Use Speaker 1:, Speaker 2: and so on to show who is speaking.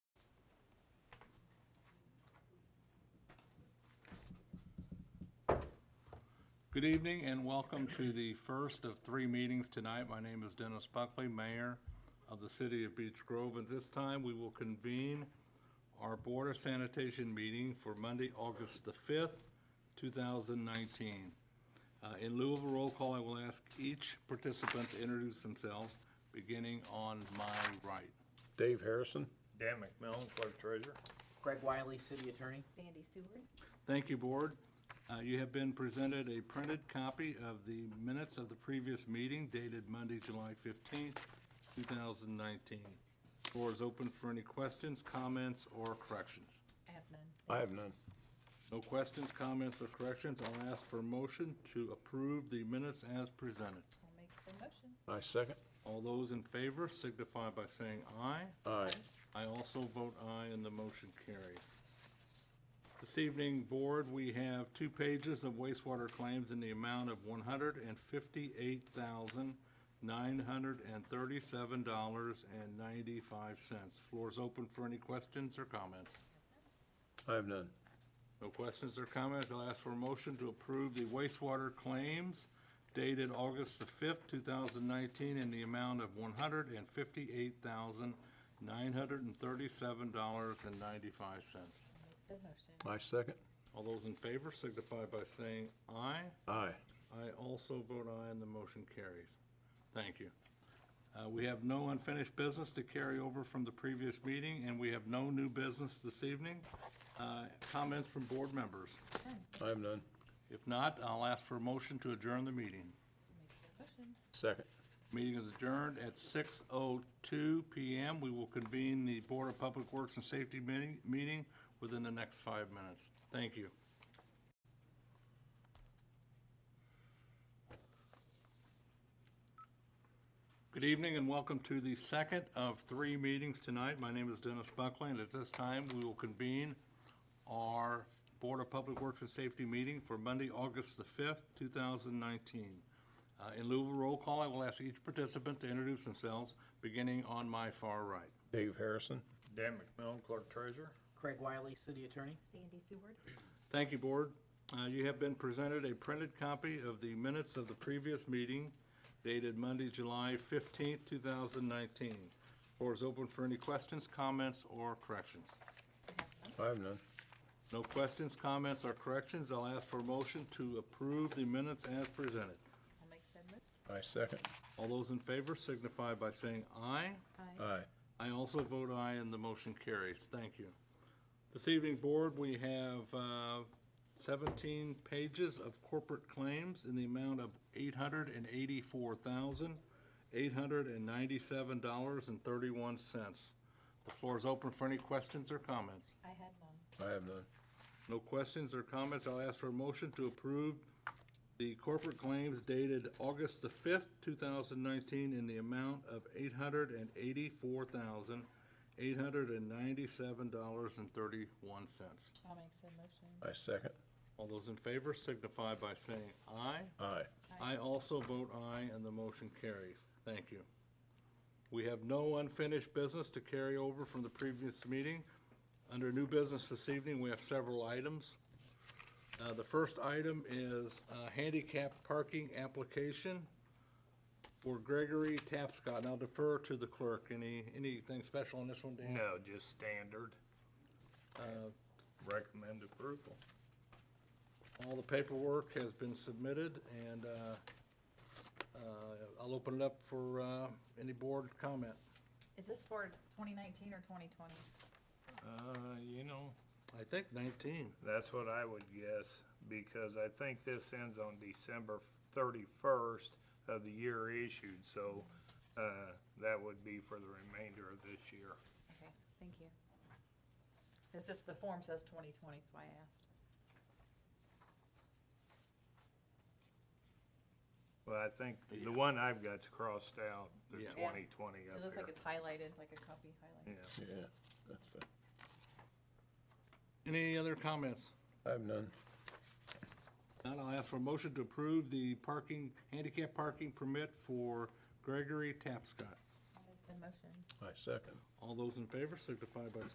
Speaker 1: Good evening and welcome to the first of three meetings tonight. My name is Dennis Buckley, Mayor of the City of Beech Grove. And this time, we will convene our Board of Sanitation meeting for Monday, August the 5th, 2019. Uh, In lieu of a roll call, I will ask each participant to introduce themselves, beginning on my right.
Speaker 2: Dave Harrison?
Speaker 3: Dan McMillan, Clerk Treasurer.
Speaker 4: Greg Wiley, City Attorney.
Speaker 5: Sandy Seward.
Speaker 1: Thank you, Board. Uh, You have been presented a printed copy of the minutes of the previous meeting dated Monday, July 15th, 2019. Floor is open for any questions, comments, or corrections.
Speaker 5: I have none.
Speaker 2: I have none.
Speaker 1: No questions, comments, or corrections. I'll ask for a motion to approve the minutes as presented.
Speaker 5: I'll make the motion.
Speaker 2: I second.
Speaker 1: All those in favor signify by saying aye.
Speaker 2: Aye.
Speaker 1: I also vote aye and the motion carries. This evening, Board, we have two pages of wastewater claims in the amount of one hundred and fifty-eight thousand, nine hundred and thirty-seven dollars and ninety-five cents. Floor is open for any questions or comments.
Speaker 2: I have none.
Speaker 1: No questions or comments. I'll ask for a motion to approve the wastewater claims dated August the fifth, two thousand nineteen, in the amount of one hundred and fifty-eight thousand, nine hundred and thirty-seven dollars and ninety-five cents.
Speaker 5: I'll make the motion.
Speaker 2: I second.
Speaker 1: All those in favor signify by saying aye.
Speaker 2: Aye.
Speaker 1: I also vote aye, and the motion carries. Thank you. Uh, We have no unfinished business to carry over from the previous meeting, and we have no new business this evening. Uh, Comments from board members?
Speaker 2: I have none.
Speaker 1: If not, I'll ask for a motion to adjourn the meeting.
Speaker 5: I'll make the motion.
Speaker 2: Second.
Speaker 1: Meeting is adjourned at 6:02 PM. We will convene the Board of Public Works and Safety meeting- meeting within the next five minutes. Thank you. Good evening and welcome to the second of three meetings tonight. My name is Dennis Buckley, and at this time, we will convene our Board of Public Works and Safety meeting for Monday, August the 5th, 2019. Uh, In lieu of a roll call, I will ask each participant to introduce themselves, beginning on my far right.
Speaker 2: Dave Harrison?
Speaker 3: Dan McMillan, Clerk Treasurer.
Speaker 4: Greg Wiley, City Attorney.
Speaker 5: Sandy Seward.
Speaker 1: Thank you, Board. Uh, You have been presented a printed copy of the minutes of the previous meeting dated Monday, July 15th, 2019. Floor is open for any questions, comments, or corrections.
Speaker 5: I have none.
Speaker 2: I have none.
Speaker 1: No questions, comments, or corrections. I'll ask for a motion to approve the minutes as presented.
Speaker 5: I'll make said motion.
Speaker 2: I second.
Speaker 1: All those in favor signify by saying aye.
Speaker 5: Aye.
Speaker 2: Aye.
Speaker 1: I also vote aye, and the motion carries. Thank you. This evening, Board, we have uh, 17 pages of corporate claims in the amount of $884,897.31. The floor is open for any questions or comments.
Speaker 5: I had none.
Speaker 2: I have none.
Speaker 1: No questions or comments. I'll ask for a motion to approve the corporate claims dated August the fifth, two thousand nineteen, in the amount of eight hundred and eighty-four thousand, eight hundred and ninety-seven dollars and thirty-one cents.
Speaker 5: I'll make said motion.
Speaker 2: I second.
Speaker 1: All those in favor signify by saying aye.
Speaker 2: Aye.
Speaker 1: I also vote aye, and the motion carries. Thank you. We have no unfinished business to carry over from the previous meeting. Under new business this evening, we have several items. Uh, The first item is uh, handicap parking application for Gregory Tapscott. And I'll defer to the clerk. Any, anything special on this one, Dan? Uh,
Speaker 3: No, just standard. Recommend approval.
Speaker 1: All the paperwork has been submitted, and uh, uh, I'll open it up for uh, any board comment.
Speaker 5: Is this for 2019 or 2020?
Speaker 3: Uh, you know,
Speaker 1: I think 19.
Speaker 3: that's what I would guess, because I think this ends on December thirty-first of the year issued, so, uh, that would be for the remainder of this year.
Speaker 5: Okay, thank you. It's just the form says 2020, that's why I asked.
Speaker 3: Well, I think the one I've got's crossed out, the
Speaker 1: Yeah.
Speaker 5: Yeah.
Speaker 3: twenty twenty
Speaker 5: It
Speaker 3: up
Speaker 5: looks like
Speaker 3: there.
Speaker 5: it's highlighted, like a copy highlighted.
Speaker 3: Yeah.
Speaker 2: Yeah. that's fine.
Speaker 1: Any other comments?
Speaker 2: I have none.
Speaker 1: Now I'll ask for a motion to approve the parking, handicap parking permit for Gregory Tapscott.
Speaker 5: Mm. I'll make the motion.
Speaker 2: I second.
Speaker 1: All those in favor signify by